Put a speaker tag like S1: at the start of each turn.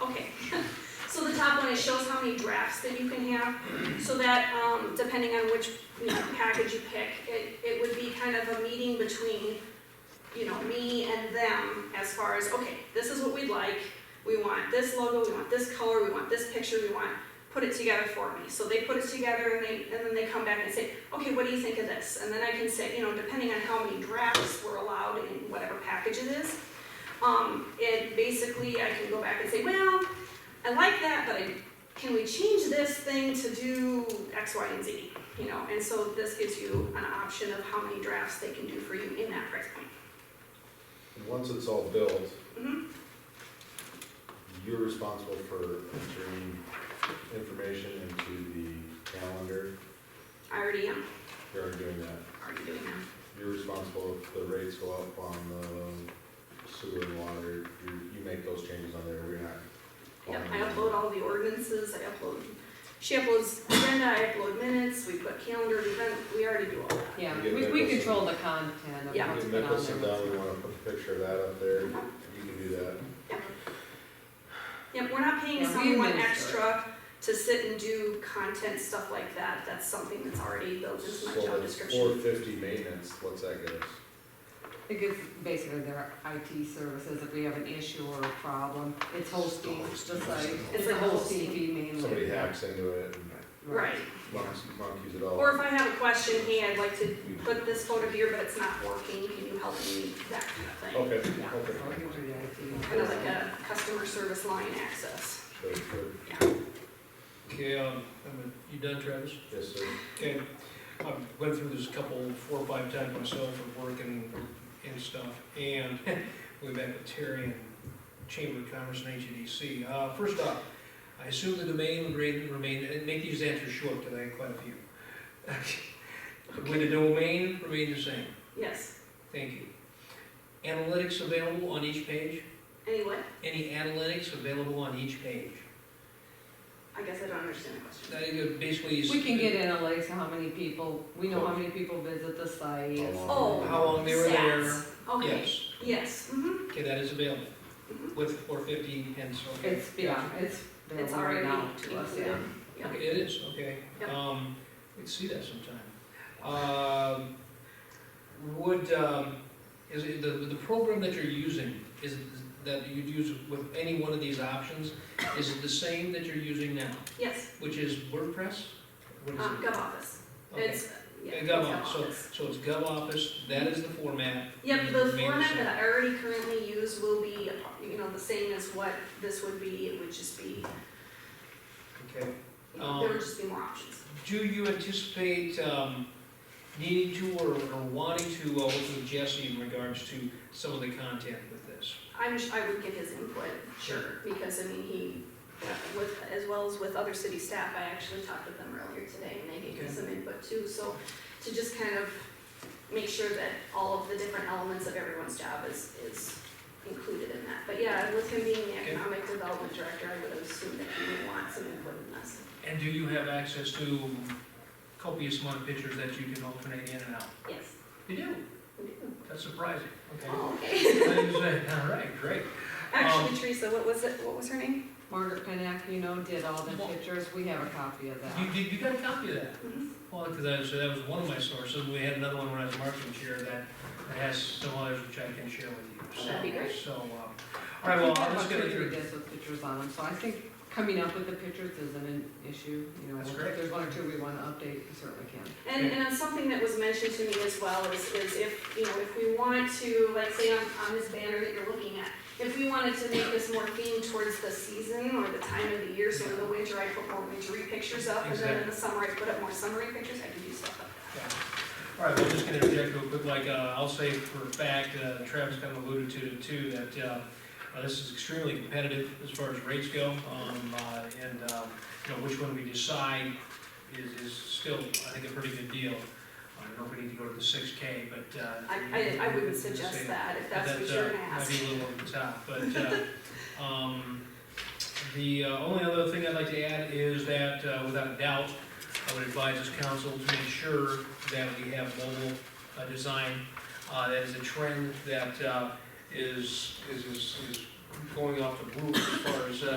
S1: and it shows how many drafts that you can have, so that, um, depending on which, you know, package you pick, it, it would be kind of a meeting between, you know, me and them as far as, okay, this is what we'd like, we want this logo, we want this color, we want this picture, we want, put it together for me. So they put it together and they, and then they come back and say, okay, what do you think of this? And then I can say, you know, depending on how many drafts were allowed in whatever package it is, um, it basically, I can go back and say, well, I like that, but I, can we change this thing to do X, Y, and Z? You know, and so this gives you an option of how many drafts they can do for you in that price point.
S2: And Once it's all built,
S1: Mhm.
S2: you're responsible for entering information into the calendar.
S1: I already am,
S2: You're already doing that.
S1: already doing that.
S2: You're responsible if the rates go up on the sewer and water. You, you make those changes on there. We're not.
S1: Yep, I upload all the ordinances, I upload, she uploads agenda, I upload minutes, we put calendar event, we already do all that.
S3: Yeah,
S2: You get
S3: we,
S2: that
S3: we
S2: person.
S3: control the content of
S1: Yeah.
S3: what's
S2: Get
S3: been
S2: Mickelson
S3: on
S2: down, we
S3: there.
S2: wanna put a picture of that up there. You
S1: Mm-hmm.
S2: can do that.
S1: Yep, we're not paying
S3: Yeah, we
S1: someone
S3: administer
S1: extra to sit and do content, stuff like that, that's something that's already built into my
S2: So
S1: job
S2: that's
S1: description.
S2: four fifty maintenance, what's that get us?
S3: It gives basically their IT services, if we have an issue or a problem, it's hosting, it's just like, it's the hosting fee mainly.
S2: Somebody
S1: Mm-hmm.
S2: hacks into it and
S1: Right,
S2: monkeys, monkeys it all.
S1: or if I have a question, hey, I'd like to put this photo here, but it's not working, can you help me, that kind of thing.
S2: Okay,
S1: Yeah.
S2: okay.
S3: So it gives you
S1: Kind
S3: the
S1: of
S3: IT.
S1: like a customer service line access.
S2: Sure, sure.
S4: Okay, um, I'm gonna- you done, Travis?
S2: Yes, sir.
S4: Okay, I've went through this a couple, four or five times myself at work and, and stuff, and way back with Terry and Chamber of Commerce and HEDC. Uh, first off, I assume the domain would remain, remain, and make these answers short, because I had quite a few. Would the domain remain the same?
S1: Yes,
S4: Thank you. Analytics available on each page?
S1: anyway,
S4: Any analytics available on each page?
S1: I guess I don't understand the question.
S4: That is basically.
S3: We can get analytics of how many people, we know how many people visit the site.
S2: How long?
S1: Oh.
S4: How long they were there?
S1: Stats. Okay,
S4: Yes,
S1: yes, mhm.
S4: okay, that is available
S1: Mm-hmm.
S4: with four fifty and so.
S3: It's, yeah, it's,
S1: It's
S3: it's already
S1: already
S3: out to us, yeah.
S1: included. yeah.
S4: Okay, it is, okay.
S1: Yep.
S4: Um, we'd see that sometime. Um, would, um, is it, the, the program that you're using, is, it- that you'd use with any one of these options, is it the same that you're using now,
S1: Yes,
S4: which is WordPress? What is
S1: uh,
S4: it?
S1: GovOffice.
S4: Okay.
S1: It's, yeah,
S4: Uh,
S1: it's
S4: GovOffice, so,
S1: GovOffice.
S4: so it's GovOffice, that is the format.
S1: Yep, the
S4: Remains
S1: format
S4: same.
S1: that I already currently use will be, you know, the same as what this would be, it would just be,
S4: Okay.
S1: you know, there
S4: Um,
S1: would just be more options.
S4: Do you anticipate um, needing to or or wanting to uh, work with Jesse in regards to some of the content with this?
S1: I'm, sh- I would get his input, sure, because I mean, he, with, as well as with other city staff, I actually talked with them earlier today and they gave me
S4: Okay.
S1: some input too, so to just kind of make sure that all of the different elements of everyone's job is, is included in that. But yeah, with him being the
S4: Okay.
S1: economic development director, I would assume that he would want some input in this.
S4: And do you have access to copious amount of pictures that you can alternate in and out?
S1: Yes.
S4: You do?
S1: we do.
S4: That's surprising. Okay.
S1: Oh, okay. Um,
S4: All right, great.
S1: Actually, Teresa, what was it, what was her name?
S3: Margaret Penack, you know, did all the pictures, we have a copy of
S4: You,
S3: that.
S4: did- you got a copy of that?
S1: Mm-hmm.
S4: Well, because I, so that was one of my sources. We had another one when I was marketing chair that that has some others which I can share with you. So-
S1: That'd be great.
S4: So, um, all right, well, I'm just gonna.
S3: We have about two or three discs with pictures on them, so I think coming up with the pictures isn't an issue, you know.
S4: That's
S3: if
S4: great.
S3: There's one or two we wanna update, we certainly can.
S1: And, and something that was mentioned to me as well is, is if, you know, if we want to, like, say on, on this banner that you're looking at, if we wanted to make this more themed towards the season or the time of the year, so in the winter I put more wintery pictures up, and then in the summer I put up more summery pictures, I can do stuff like that.
S4: Yeah. All right, well, just gonna interject real quick, like, uh, I'll say for a fact, uh, Travis kind of alluded to it too, that, uh, uh, this is extremely competitive as far as rates go, um, uh, and, um, you know, which one we decide is, is still, I think, a pretty good deal. I don't know if we need to go to the six K, but, uh.
S1: I, I, I wouldn't suggest that, if that's what
S4: That's,
S1: you're
S4: uh,
S1: gonna ask.
S4: Might be a little over the top, but, uh, um, the uh, only other thing I'd like to add is that, uh, without a doubt, I would advise this council to make sure that we have mobile, uh, design. Uh, that is a trend that, uh, is, is, is is going off the roof as far as, uh,